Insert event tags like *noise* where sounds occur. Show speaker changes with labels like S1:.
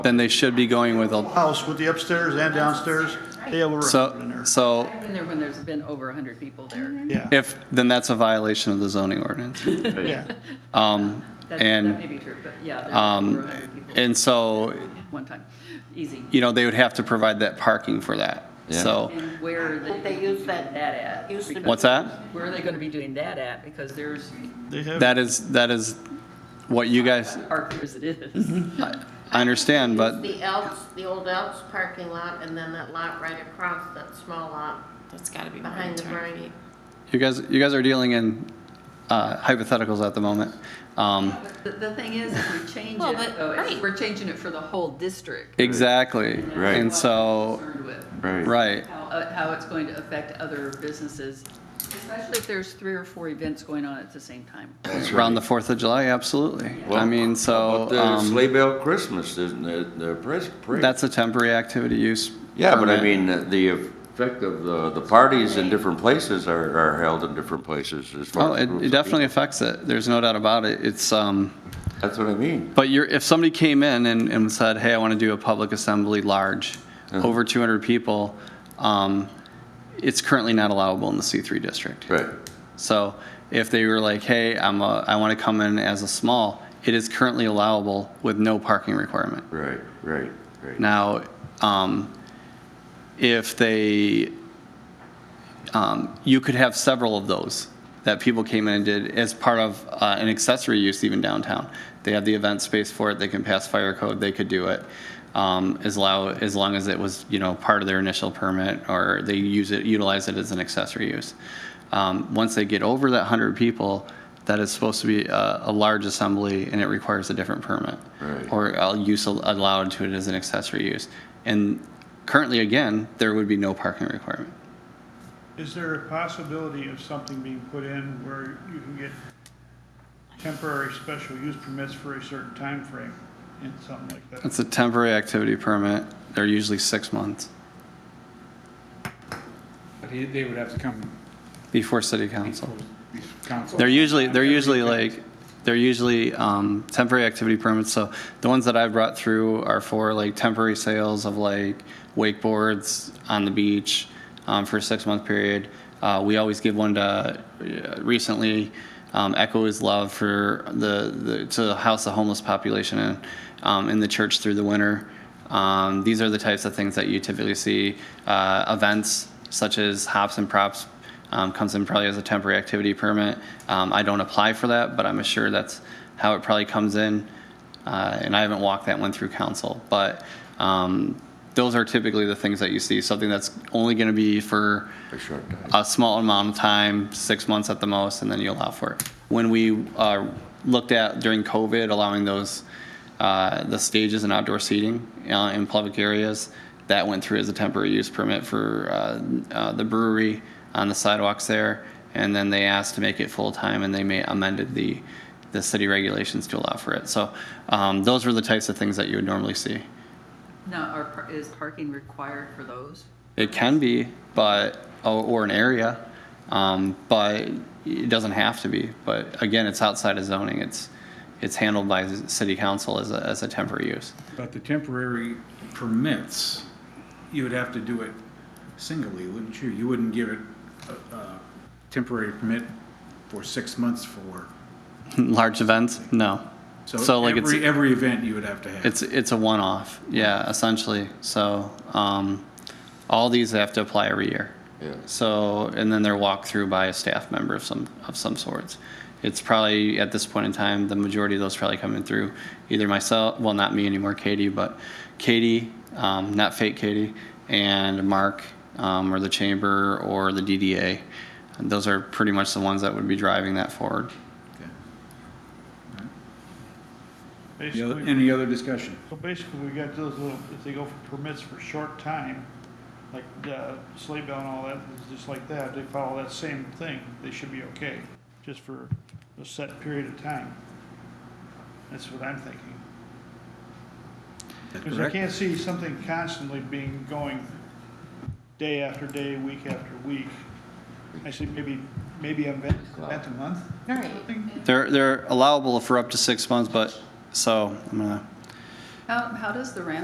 S1: then they should be going with a,
S2: house with the upstairs and downstairs, they have over a hundred in
S1: so,
S2: there.
S1: so
S3: Been there when there's been over 100 people there.
S2: Yeah,
S1: if, then that's a violation of the zoning ordinance.
S2: yeah.
S1: Um,
S3: That that may
S1: and,
S3: be true, but yeah, there's over
S1: um,
S3: 100 people
S1: and so,
S3: at one time. Easy.
S1: you know, they would have to provide that parking for that.
S4: Yeah.
S1: So,
S3: And where are
S5: But
S3: they
S5: they
S3: doing
S5: use that-
S3: that at?
S5: used to-
S3: Because-
S1: what's that?
S3: Where are they going to be doing that at? Because there's,
S2: They have,
S1: That is, that is what you guys,
S3: park as it is.
S1: I I understand, but
S5: The Elks, the old Elks parking lot, and then that lot right across, that small lot
S6: That's gotta be more than
S5: behind the
S6: 200
S5: briny.
S6: feet.
S1: you guys, you guys are dealing in uh, hypotheticals at the moment. Um,
S3: The, the thing is, if we change it,
S6: Well, but-
S3: though, it's-
S6: right.
S3: we're changing it for the whole district.
S1: Exactly.
S4: Right.
S1: And so,
S3: Concerned with.
S4: Right.
S1: right.
S3: how, uh, how it's going to affect other businesses, especially if there's three or four events going on at the same time.
S1: Around the Fourth of July, absolutely. I
S4: Well,
S1: mean,
S4: But
S1: so,
S4: there's
S1: um,
S4: sleigh bell Christmas, isn't there, the pres- parade?
S1: that's a temporary activity use.
S4: Yeah, but I
S1: permit.
S4: mean, the effect of the, the parties in different places are, are held in different places as
S1: Oh,
S4: far as.
S1: it,
S4: groups
S1: it
S4: of
S1: definitely
S4: people.
S1: affects it. There's no doubt about it. It's, um,
S4: That's what I mean.
S1: but you're, if somebody came in and, and said, hey, I want to do a public assembly large,
S4: Uh-huh.
S1: over two hundred people, um, it's currently not allowable in the C three district.
S4: Right.
S1: So if they were like, hey, I'm a, I want to come in as a small, it is currently allowable with no parking requirement.
S4: Right, right, right.
S1: Now, um, if they, um, you could have several of those that people came in and did as part of uh, an accessory use even downtown. They have the event space for it, they can pass fire code, they could do it. um, As low, as long as it was, you know, part of their initial permit or they use it, utilize it as an accessory use. Um, Once they get over that hundred people, that is supposed to be a, a large assembly and it requires a different permit.
S4: Right.
S1: Or or uh, use al- allowed to it as an accessory use. And currently, again, there would be no parking requirement.
S7: Is there a possibility of something being put in where you can get temporary special use permits for a certain time frame and something like that?
S1: It's a temporary activity permit. They're usually six months
S8: But he- they would have to come
S1: before city
S8: before
S1: council.
S8: the council.
S1: They're usually, they're usually like, they're usually um, temporary activity permits. So the ones that I've brought through are for like temporary sales of like wakeboards on the beach um, for a six-month period. Uh, We always give one to, uh, recently, um, Echo is Love for the, the to house the homeless population in, um, in the church through the winter. Um, These are the types of things that you typically see. Uh, Events such as hops and props um, comes in probably as a temporary activity permit. Um, I don't apply for that, but I'm assured that's how it probably comes in. Uh, and I haven't walked that one through council, but um, those are typically the things that you see. Something that's only going to be for
S4: A short time.
S1: a small amount of time, six months at the most, and then you allow for it. When we uh, looked at during COVID, allowing those, uh, the stages and outdoor seating uh, in public areas, that went through as a temporary use permit for uh, uh, the brewery on the sidewalks there. And then they asked to make it full-time, and they may amended the, the city regulations to allow for it. So um, those were the types of things that you would normally see.
S3: Now, are, par- is parking required for those?
S1: It can be, but, or, or an area, um, but it doesn't have to be. But again, it's outside of zoning. It's, it's handled by the city council as a, as a temporary use. *laughs*
S8: But the temporary permits, you would have to do it singly, wouldn't you? You wouldn't give it a, a temporary permit for six months for.
S1: Large events, no. So like
S8: every,
S1: it's,
S8: every event you would have to have.
S1: it's, it's a one-off, yeah, essentially. So, um, all these have to apply every year.
S4: Yeah.
S1: So, and then they're walked through by a staff member of some, of some sorts. It's probably, at this point in time, the majority of those probably coming through either myself, well, not me anymore, Katie, but Katie, um, not fake Katie, and Mark, um, or the chamber, or the DDA. And those are pretty much the ones that would be driving that forward.
S8: Okay. The other-
S2: Basically,
S8: Any other discussion?
S2: so basically, we got those little, if they go for permits for short time, like the sleigh bell and all that, it's just like that, they follow that same thing, they should be okay, just for a set period of time. That's what I'm thinking. Because I
S8: Correct?
S2: can't see something constantly being going day after day, week after week. Actually, maybe, maybe a event, event a month, something?
S1: They're, they're allowable for up to six months, but, so, I'm gonna
S3: How, how does the ramp